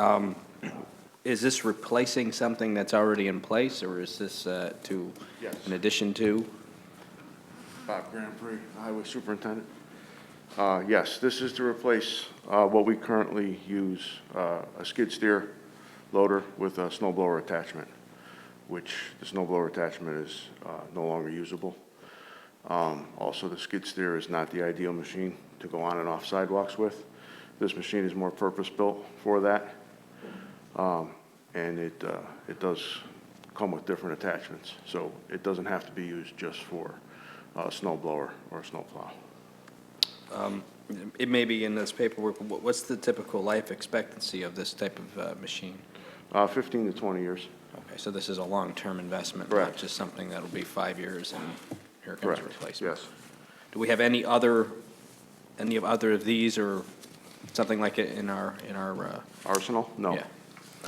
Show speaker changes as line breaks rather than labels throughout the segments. Um, Is this replacing something that's already in place, or is this uh, to,
Yes.
in addition to?
Bob Grand Prix, Highway Superintendent. Uh, Yes, this is to replace uh, what we currently use, uh, a skid steer loader with a snow blower attachment, which the snow blower attachment is uh, no longer usable. Um, Also, the skid steer is not the ideal machine to go on and off sidewalks with. This machine is more purpose-built for that, Um, and it, uh, it does come with different attachments, so it doesn't have to be used just for a snow blower or a snow plow.
It may be in this paperwork, but what- what's the typical life expectancy of this type of uh, machine?
Uh, 15 to 20 years.
Okay, so this is a long-term investment, not
Correct.
just something that'll be five years and here comes a replacement?
Yes.
Do we have any other, any of other of these or something like it in our, in our, uh,
Arsenal? No,
yeah?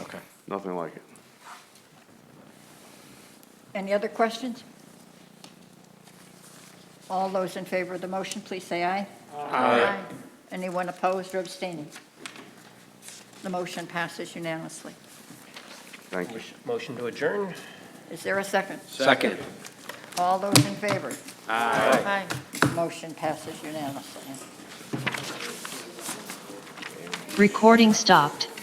Okay.
nothing like it.
Any other questions? All those in favor of the motion, please say aye. Aye. Anyone opposed or abstaining? The motion passes unanimously.
Thank you.
Motion to adjourn?
Is there a second?
Second.
All those in favor? Aye. Motion passes unanimously.
Recording stopped.